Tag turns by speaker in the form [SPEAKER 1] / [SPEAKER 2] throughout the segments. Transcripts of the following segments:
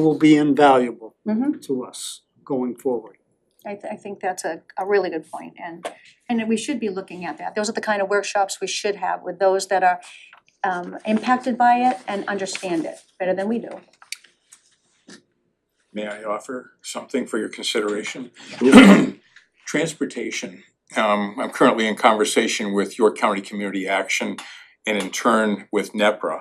[SPEAKER 1] will be invaluable
[SPEAKER 2] hmm
[SPEAKER 1] to us going forward.
[SPEAKER 2] I th- I think that's a a really good point and and we should be looking at that. Those are the kind of workshops we should have with those that are um impacted by it and understand it better than we do.
[SPEAKER 3] May I offer something for your consideration? Transportation, um, I'm currently in conversation with York County Community Action and in turn with NEPRA.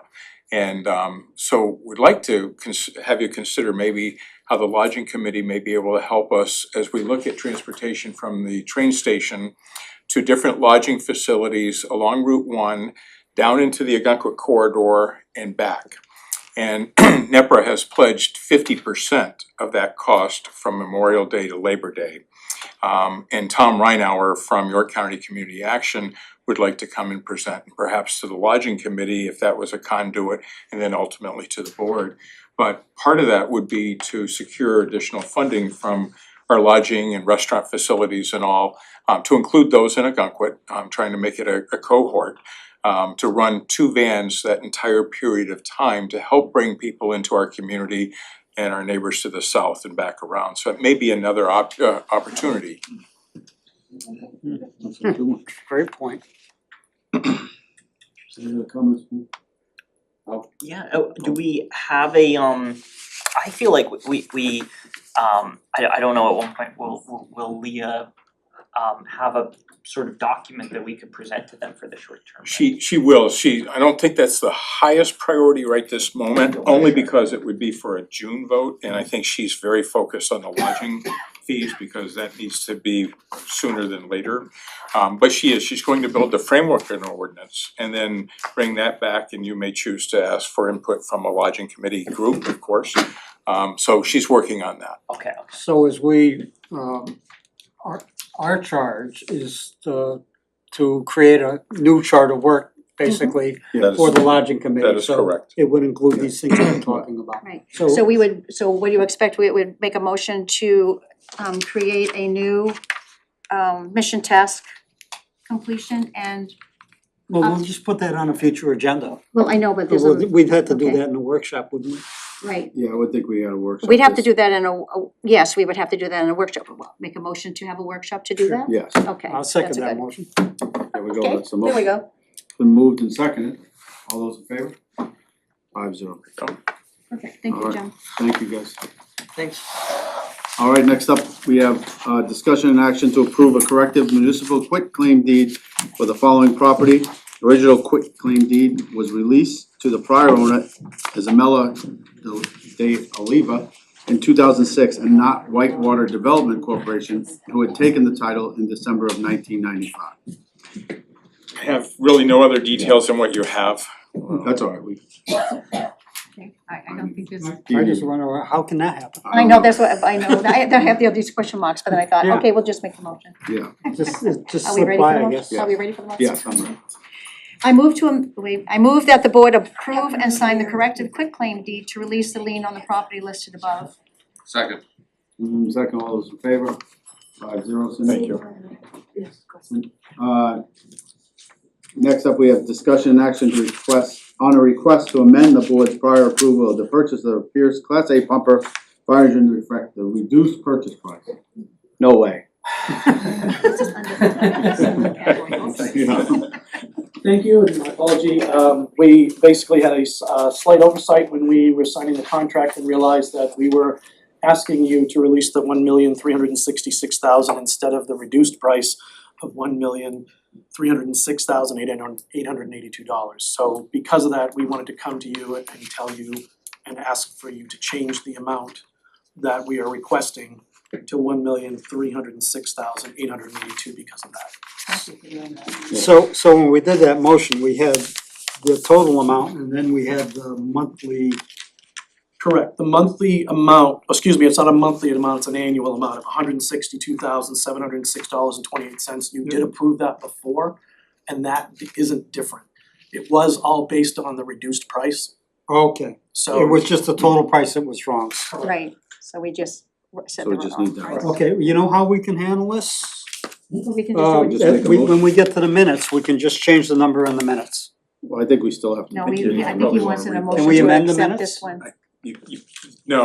[SPEAKER 3] And um, so would like to cons- have you consider maybe how the lodging committee may be able to help us as we look at transportation from the train station to different lodging facilities along Route One, down into the Agunquit corridor and back. And NEPRA has pledged fifty percent of that cost from Memorial Day to Labor Day. Um, and Tom Reinauer from York County Community Action would like to come and present, perhaps to the lodging committee if that was a conduit, and then ultimately to the board. But part of that would be to secure additional funding from our lodging and restaurant facilities and all, um, to include those in Agunquit, um, trying to make it a- a cohort um to run two vans that entire period of time to help bring people into our community and our neighbors to the south and back around. So it may be another op- uh opportunity.
[SPEAKER 4] That's a good one.
[SPEAKER 1] Great point.
[SPEAKER 4] Any other comments?
[SPEAKER 5] Yeah, oh, do we have a, um, I feel like we, we, um, I, I don't know, at one point, will, will- will Leah, um, have a sort of document that we could present to them for the short term?
[SPEAKER 3] She she will, she, I don't think that's the highest priority right this moment, only because it would be for a June vote. And I think she's very focused on the lodging fees because that needs to be sooner than later. Um but she is, she's going to build the framework in our ordinance and then bring that back and you may choose to ask for input from a lodging committee group, of course. Um so she's working on that.
[SPEAKER 5] Okay,
[SPEAKER 1] So as we, um, our, our charge is to, to create a new chart of work, basically,
[SPEAKER 3] That
[SPEAKER 2] Mm-hmm.
[SPEAKER 1] for the
[SPEAKER 3] is,
[SPEAKER 1] lodging committee.
[SPEAKER 3] that is
[SPEAKER 1] So
[SPEAKER 3] correct.
[SPEAKER 1] It would include these things we're talking about.
[SPEAKER 2] Right. So
[SPEAKER 1] So,
[SPEAKER 2] we would, so what do you expect? We would make a motion to um create a new um mission task completion and,
[SPEAKER 1] well, we'll just put that on a future agenda.
[SPEAKER 2] well, I know, but there's a,
[SPEAKER 1] We'd have to do
[SPEAKER 2] uh, okay.
[SPEAKER 1] that in a workshop, wouldn't we?
[SPEAKER 2] right.
[SPEAKER 4] Yeah, I would think we had a workshop.
[SPEAKER 2] We'd have to do that in a, a- yes, we would have to do that in a workshop. Well, Make a motion to have a workshop to do
[SPEAKER 1] Sure.
[SPEAKER 2] that?
[SPEAKER 4] Yes,
[SPEAKER 2] Okay,
[SPEAKER 1] I'll
[SPEAKER 2] that's
[SPEAKER 1] second
[SPEAKER 2] a
[SPEAKER 1] that
[SPEAKER 2] good-
[SPEAKER 1] motion.
[SPEAKER 4] there we go,
[SPEAKER 2] Okay,
[SPEAKER 4] that's the
[SPEAKER 2] There we
[SPEAKER 4] motion.
[SPEAKER 2] go.
[SPEAKER 4] Been moved and seconded, all those in favor? Five zero,
[SPEAKER 2] Perfect, thank you,
[SPEAKER 4] Alright.
[SPEAKER 2] John.
[SPEAKER 4] thank you guys.
[SPEAKER 1] Thanks.
[SPEAKER 4] All right, next up, we have uh discussion and action to approve a corrective municipal quitclaim deed for the following property. The Original quitclaim deed was released to the prior owner, Isabella de Oliva, in two thousand six, and not Whitewater Development Corporation, who had taken the title in December of nineteen ninety-five.
[SPEAKER 3] I have really no other details than what you have.
[SPEAKER 4] That's all right, we.
[SPEAKER 2] Okay, I I don't think there's.
[SPEAKER 1] I just wonder, how can that happen?
[SPEAKER 2] I know, that's what, I know, I I have the other these question marks, but then I thought,
[SPEAKER 1] Yeah.
[SPEAKER 2] okay, we'll just make the motion.
[SPEAKER 4] Yeah,
[SPEAKER 1] Just, it just
[SPEAKER 2] Are we
[SPEAKER 1] slipped
[SPEAKER 2] ready for
[SPEAKER 1] by,
[SPEAKER 2] the
[SPEAKER 1] I
[SPEAKER 2] motion?
[SPEAKER 1] guess.
[SPEAKER 2] Are we ready for the motion?
[SPEAKER 4] yeah, I'm right.
[SPEAKER 2] I move to, am- wait, I move that the board approve and sign the corrective quitclaim deed to release the lien on the property listed above.
[SPEAKER 6] Second.
[SPEAKER 4] Mm, second, all those in favor? Five zero, Cindy.
[SPEAKER 3] Thank you.
[SPEAKER 4] Uh, Next up, we have discussion and action to request, on a request to amend the board's prior approval of the purchase of the Pierce Class A pumper fire engine refractor, reduced purchase price. No way.
[SPEAKER 7] Thank you, and my apology, um, we basically had a s- uh, slight oversight when we were signing the contract and realized that we were asking you to release the one million three hundred and sixty-six thousand instead of the reduced price of one million three hundred and six thousand eight hundred, eight hundred and eighty-two dollars. So because of that, we wanted to come to you and and tell you and ask for you to change the amount that we are requesting to one million three hundred and six thousand eight hundred and eighty-two because of that.
[SPEAKER 1] So, so when we did that motion, we had the total amount and then we had the monthly,
[SPEAKER 7] Correct, the monthly amount, excuse me, it's not a monthly amount, it's an annual amount of hundred and sixty-two thousand, seven hundred and six dollars and twenty-eight cents, you
[SPEAKER 1] Mm-hmm.
[SPEAKER 7] did approve that before, and that isn't different. It was all based on the reduced price,
[SPEAKER 1] okay.
[SPEAKER 7] so.
[SPEAKER 1] It was just the total price that was wrong.
[SPEAKER 2] Right, so we just r- said the
[SPEAKER 4] So we
[SPEAKER 2] wrong.
[SPEAKER 4] just need that, right.
[SPEAKER 1] Okay, you know how we can handle this?
[SPEAKER 2] We can
[SPEAKER 1] Uh,
[SPEAKER 2] just do
[SPEAKER 4] just make
[SPEAKER 1] that
[SPEAKER 4] a
[SPEAKER 1] we-
[SPEAKER 4] motion.
[SPEAKER 1] when we get to the minutes, we can just change the number in the minutes.
[SPEAKER 4] Well, I think we still have to.
[SPEAKER 2] it, no, we,
[SPEAKER 4] continue.
[SPEAKER 2] I think he wants an
[SPEAKER 4] Probably
[SPEAKER 2] emotion
[SPEAKER 4] wanna read-
[SPEAKER 1] we
[SPEAKER 2] to
[SPEAKER 1] amend the
[SPEAKER 2] accept
[SPEAKER 1] minutes?
[SPEAKER 2] this one.
[SPEAKER 3] You you, no,